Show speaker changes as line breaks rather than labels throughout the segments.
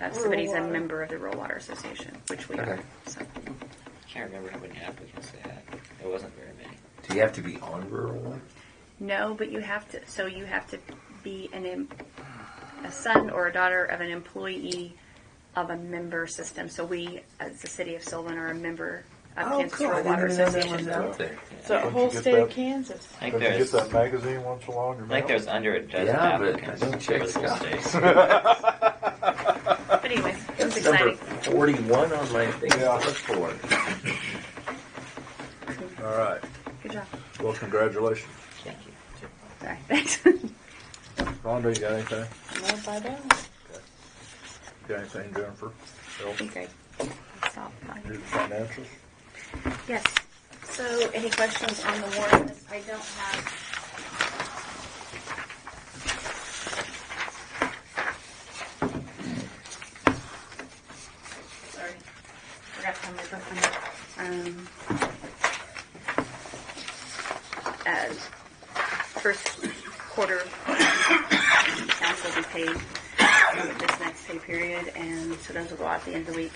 if somebody's a member of the Rural Water Association, which we are.
Okay.
So
can't remember how many applicants they had. It wasn't very many.
Do you have to be on rural one?
no, but you have to. So you have to be an em- a son or a daughter of an employee of a member system. So we, as the city of Sylvan, are a member of
Oh,
Kansas
cool. I
Rural Water
didn't even know that
Association.
was out there.
It's a
Don't
whole
you get
state of
that?
Kansas.
I think
Don't you
there's,
get
I
that magazine once in a while in your
think
mail?
there's under a dozen
Yeah, but
applicants.
don't check
for the whole
Scott.
state.
But anyway, it was
Number
exciting.
41 on my thing to
Yeah.
look for.
All right.
Good job.
Well, congratulations.
Thank you.
Sorry. Thanks.
Rhonda, you got anything?
Led by them.
Got anything, Jennifer?
Be
Bill?
great. Stop.
Your financials?
Yes.
So, any questions on the warrant? I don't have. Sorry, forgot to have my book on it.
Um, uh, first quarter accounts will be paid um, this next pay period, and so those will go out at the end of the week.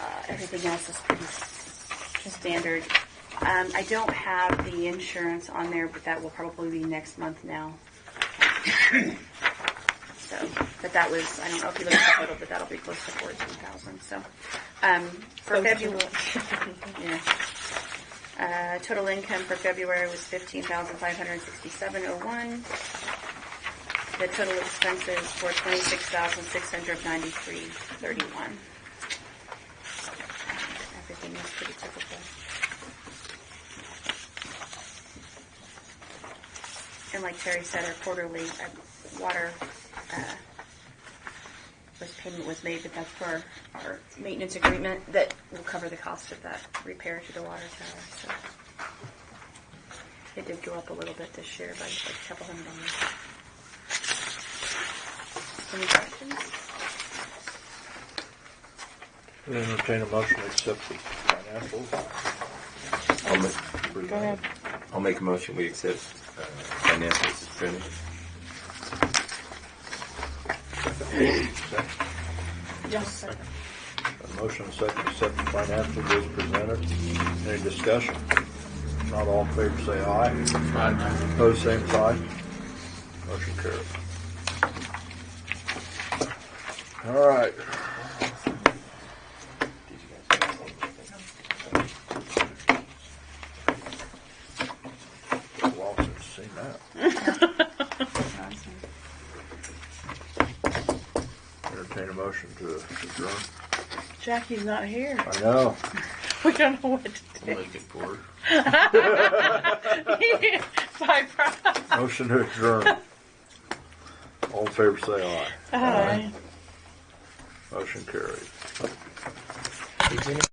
Uh, everything else is pretty s- standard. Um, I don't have the insurance on there, but that will probably be next month now. So, but that was, I don't know if you looked at the total, but that'll be close to fourteen thousand, so. Um, for February, yeah. Uh, total income for February was fifteen thousand five hundred sixty-seven oh one. The total expenses were twenty-six thousand six hundred ninety-three thirty-one. Everything is pretty typical. And like Terry said, our quarterly uh, water uh, was payment was made, but that's for our maintenance agreement that will cover the cost of that repair to the water tower. So it did go up a little bit this year by like a couple hundred dollars. Any questions?
Entertain a motion to accept the financials.
I'll make,
Go ahead.
I'll make a motion. We accept uh, financials as printed.
Yes.
A motion second to accept the financials as presented. Any discussion? If Not all in favor, say aye. Aye. Pose same sign. Motion carried. All right. Lost it, seen that. Entertain a motion to adjourn.
Jackie's not here.
I know.
We don't know what to do.
Make it forward.
Bye, Brian.
Motion to adjourn. All in favor, say
Bye.
aye. Motion carried.